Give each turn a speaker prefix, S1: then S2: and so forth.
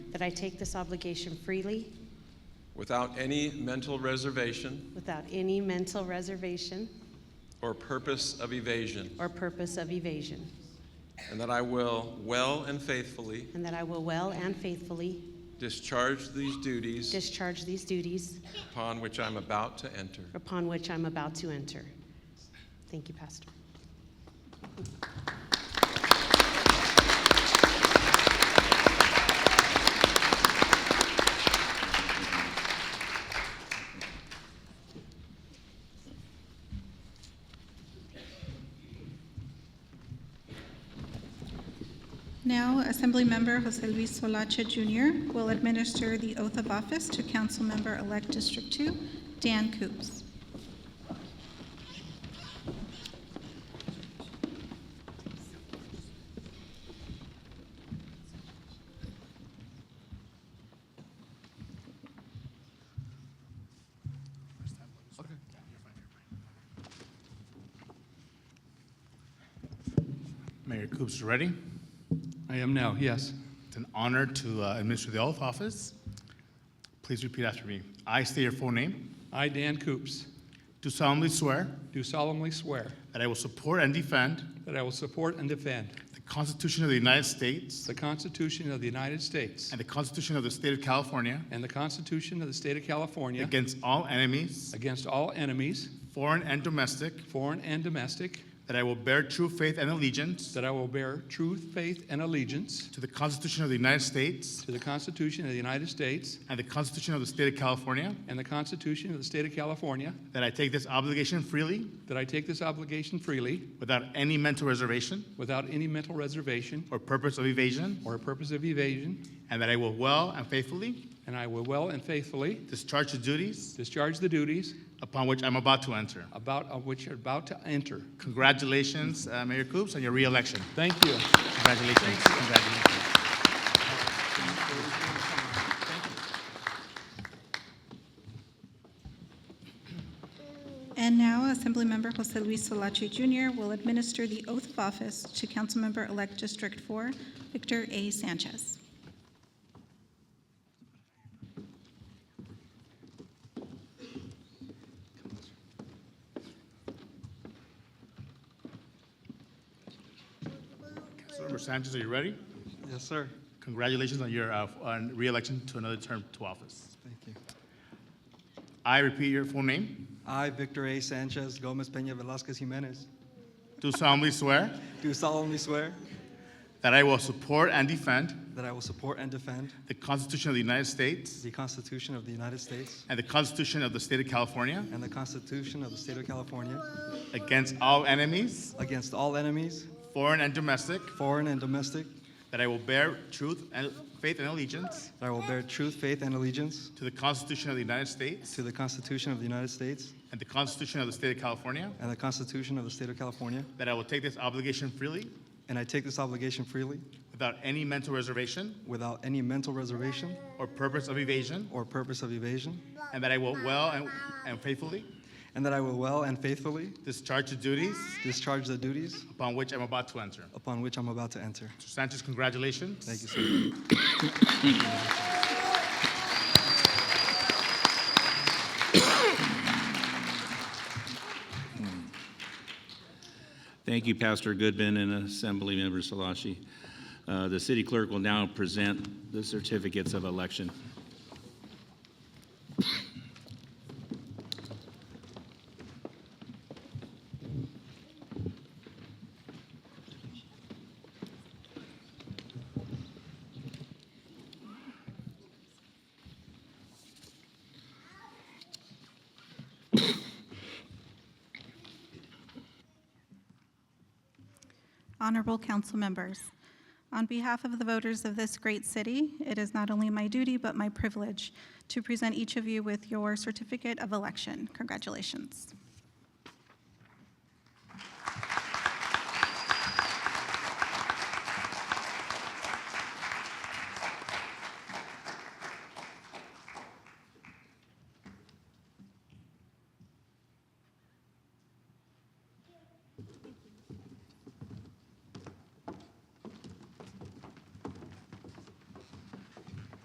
S1: that I take this obligation freely
S2: without any mental reservation
S1: without any mental reservation
S2: or purpose of evasion,
S1: or purpose of evasion,
S2: and that I will well and faithfully
S1: and that I will well and faithfully
S2: discharge these duties
S1: discharge these duties
S2: upon which I'm about to enter.
S1: upon which I'm about to enter. Thank you, Pastor.
S3: Now, Assemblymember Jose Luis Solache Jr. will administer the oath of office to Councilmember-elect District 2, Dan Coops.
S4: Mayor Coops, you ready?
S5: I am now, yes.
S4: It's an honor to uh, administer the oath of office. Please repeat after me. I state your full name.
S5: I, Dan Coops,
S4: Do solemnly swear
S5: do solemnly swear
S4: that I will support and defend
S5: that I will support and defend
S4: the Constitution of the United States
S5: the Constitution of the United States
S4: and the Constitution of the State of California
S5: and the Constitution of the State of California
S4: against all enemies,
S5: against all enemies,
S4: foreign and domestic,
S5: foreign and domestic,
S4: that I will bear true faith and allegiance
S5: that I will bear true faith and allegiance
S4: to the Constitution of the United States
S5: to the Constitution of the United States
S4: and the Constitution of the State of California,
S5: and the Constitution of the State of California,
S4: that I take this obligation freely
S5: that I take this obligation freely
S4: without any mental reservation
S5: without any mental reservation
S4: or purpose of evasion,
S5: or purpose of evasion,
S4: and that I will well and faithfully
S5: and I will well and faithfully
S4: discharge the duties
S5: discharge the duties
S4: upon which I'm about to enter.
S5: about of which you're about to enter.
S4: Congratulations, uh, Mayor Coops, on your reelection.
S5: Thank you.
S4: Congratulations. Congratulations.
S3: And now, Assemblymember Jose Luis Solache Jr. will administer the oath of office to Councilmember-elect District 4, Victor A. Sanchez.
S4: Councilmember Sanchez, are you ready?
S6: Yes, sir.
S4: Congratulations on your uh, on reelection to another term to office.
S6: Thank you.
S4: I repeat your full name.
S6: I, Victor A. Sanchez Gomez Peña Velasquez Jimenez,
S4: Do solemnly swear
S6: do solemnly swear
S4: that I will support and defend
S6: that I will support and defend
S4: the Constitution of the United States
S6: the Constitution of the United States
S4: and the Constitution of the State of California
S6: and the Constitution of the State of California
S4: against all enemies,
S6: against all enemies,
S4: foreign and domestic,
S6: foreign and domestic,
S4: that I will bear truth and faith and allegiance
S6: that I will bear truth, faith, and allegiance
S4: to the Constitution of the United States
S6: to the Constitution of the United States
S4: and the Constitution of the State of California,
S6: and the Constitution of the State of California,
S4: that I will take this obligation freely
S6: and I take this obligation freely
S4: without any mental reservation
S6: without any mental reservation
S4: or purpose of evasion,
S6: or purpose of evasion,
S4: and that I will well and, and faithfully
S6: and that I will well and faithfully
S4: discharge the duties
S6: discharge the duties
S4: upon which I'm about to enter.
S6: upon which I'm about to enter.
S4: Mr. Sanchez, congratulations.
S6: Thank you, sir.
S7: Thank you, Pastor Goodman and Assemblymember Salashi. Uh, The city clerk will now present the certificates of election.
S3: Honorable council members, on behalf of the voters of this great city, it is not only my duty but my privilege to present each of you with your certificate of election. Congratulations.